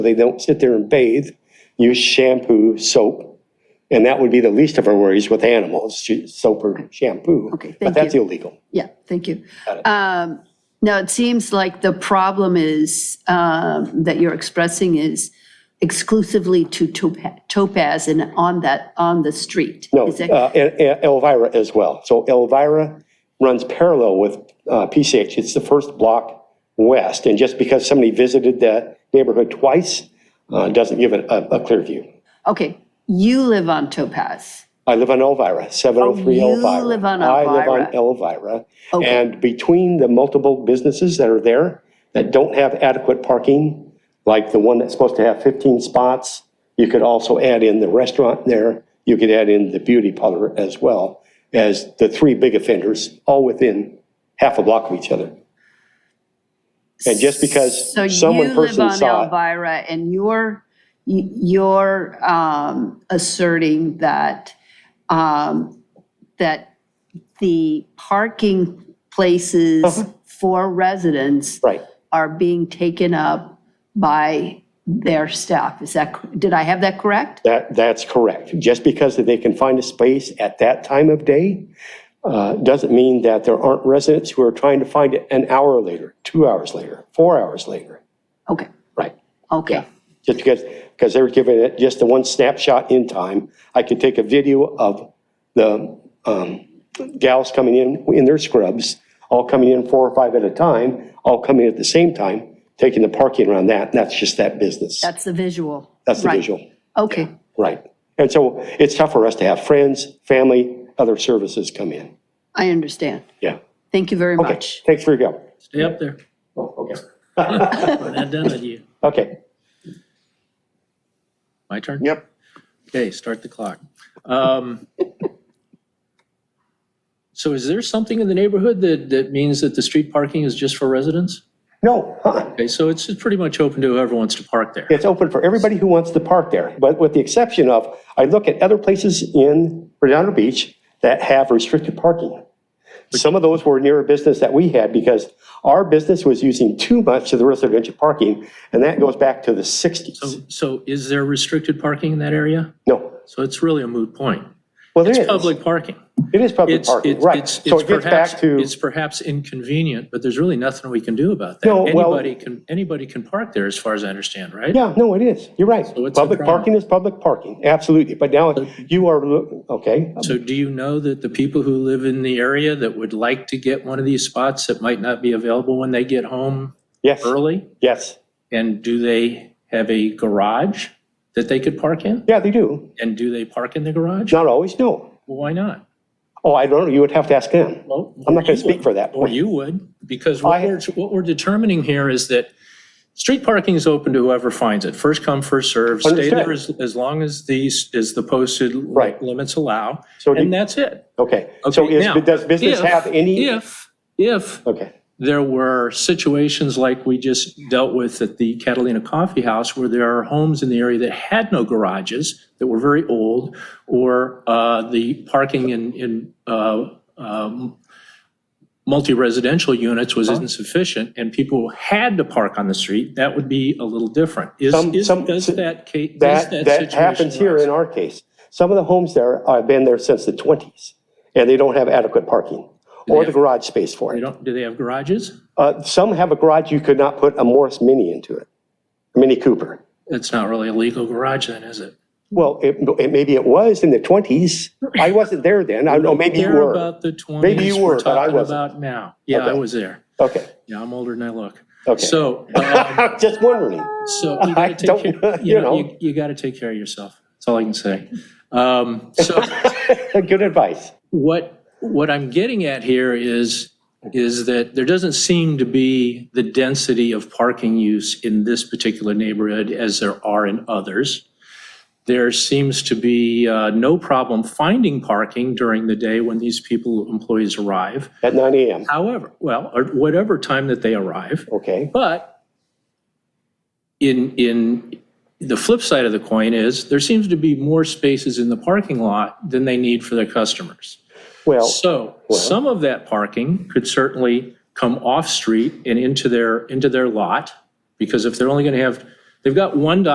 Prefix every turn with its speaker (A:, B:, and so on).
A: They don't sit there and bathe, use shampoo, soap, and that would be the least of our worries with animals, sh- soap or shampoo.
B: Okay,
A: But
B: thank
A: that's
B: you.
A: illegal.
B: Yeah, thank you.
A: Got it.
B: Um, Now, it seems like the problem is, um, that you're expressing is exclusively to Topa- Topaz and on that, on the street.
A: No,
B: Is that-
A: uh, and- and Elvira as well. So Elvira runs parallel with uh, PCH. It's the first block west. And just because somebody visited that neighborhood twice uh, doesn't give it a a clear view.
B: Okay, you live on Topaz.
A: I live on Elvira, 703
B: Oh, you
A: Elvira.
B: live on
A: I live on
B: Elvira. Oh.
A: Elvira.
B: Okay.
A: And between the multiple businesses that are there that don't have adequate parking, like the one that's supposed to have 15 spots, you could also add in the restaurant there, you could add in the beauty parlor as well as the three big offenders, all within half a block of each other. And just because
B: So
A: some
B: you
A: one
B: live
A: person
B: on
A: saw it,
B: Elvira and you're, y- you're um, asserting that, um, that the parking places for residents
A: Uh-huh. right,
B: are being taken up by their staff. Is that, cor- did I have that correct?
A: That, that's correct. Just because that they can find a space at that time of day uh, doesn't mean that there aren't residents who are trying to find it an hour later, two hours later, four hours later.
B: Okay,
A: Right.
B: okay.
A: Just because, because they were giving it just the one snapshot in time. I could take a video of the um, gals coming in, in their scrubs, all coming in four or five at a time, all coming at the same time, taking the parking around that, and that's just that business.
B: That's the visual.
A: That's the
B: Right.
A: visual.
B: Okay,
A: Right. And so it's tough for us to have friends, family, other services come in.
B: I understand.
A: Yeah.
B: Thank you very
A: Okay.
B: much.
A: Thanks for your help.
C: Stay up there.
A: Oh, okay.
C: We're not done with you.
A: Okay.
C: My turn?
D: Yep.
C: Okay, start the clock. Um, So is there something in the neighborhood that, that means that the street parking is just for residents?
A: No, uh-uh.
C: Okay, so it's pretty much open to whoever wants to park there.
A: it's open for everybody who wants to park there, but with the exception of, I look at other places in Redondo Beach that have restricted parking. Some of those were near a business that we had because our business was using too much of the residential parking, and that goes back to the 60s.
C: So is there restricted parking in that area?
A: No.
C: So it's really a moot point.
A: Well, there
C: It's
A: is.
C: public parking.
A: It is public
C: It's,
A: parking,
C: it's,
A: right.
C: it's-
A: So
C: it's
A: it gets back
C: perhaps,
A: to.
C: it's perhaps inconvenient, but there's really nothing we can do about that.
A: No, well-
C: Anybody can, anybody can park there, as far as I understand, right?
A: Yeah, no, it is. You're right.
C: what's the
A: Public
C: problem?
A: parking is public parking, absolutely. But now you are, lo- okay,
C: So do you know that the people who live in the area that would like to get one of these spots that might not be available when they get home
A: yes,
C: early?
A: yes.
C: And do they have a garage that they could park in?
A: Yeah, they do.
C: And do they park in the garage?
A: Not always, no.
C: Well, Why not?
A: Oh, I don't know, you would have to ask them.
C: Well,
A: I'm not
C: or
A: gonna
C: you
A: speak
C: would.
A: for that
C: Or
A: point.
C: you would, because what
A: I-
C: we're, what we're determining here is that street parking is open to whoever finds it. First come, first served. Stay
A: Understood.
C: there as, as long as these, as the posted
A: Right.
C: limits allow.
A: So do-
C: And that's it.
A: Okay, so
C: Okay,
A: is,
C: now,
A: does business
C: if-
A: have any?
C: If, if
A: Okay,
C: there were situations like we just dealt with at the Catalina Coffee House, where there are homes in the area that had no garages, that were very old, or uh, the parking in, in uh, um, multi-residential units was insufficient, and people had to park on the street, that would be a little different. Is,
A: Some-
C: is,
A: some-
C: does that case?
A: that, that happens here in our case. Some of the homes there have been there since the 20s, and they don't have adequate parking or the garage space for
C: They
A: it.
C: don't, do they have garages?
A: Uh, Some have a garage, you could not put a Morris Mini into it, a Mini Cooper.
C: It's not really a legal garage then, is it?
A: Well, it, it- maybe it was in the 20s. I wasn't there then. I don't know, maybe you
C: Care
A: were.
C: about the 20s.
A: Maybe you
C: we're
A: were, but I
C: talking
A: wasn't.
C: About now. Yeah, I
A: Okay.
C: was there.
A: Okay,
C: Yeah, I'm older than I look.
A: okay.
C: So, um,
A: Just wondering.
C: so you gotta
A: don't-
C: take, care-
A: you know.
C: you know, you- you gotta take care of yourself. That's all I can say. Um, so
A: Good advice.
C: what, what I'm getting at here is, is that there doesn't seem to be the density of parking use in this particular neighborhood as there are in others. There seems to be, uh, no problem finding parking during the day when these people, employees arrive.
A: At 9 AM,
C: However, well, or whatever time that they arrive.
A: okay.
C: But in, in, the flip side of the coin is, there seems to be more spaces in the parking lot than they need for their customers.
A: Well,
C: So some of that parking could certainly come off-street and into their, into their lot, because if they're only going to have They've got one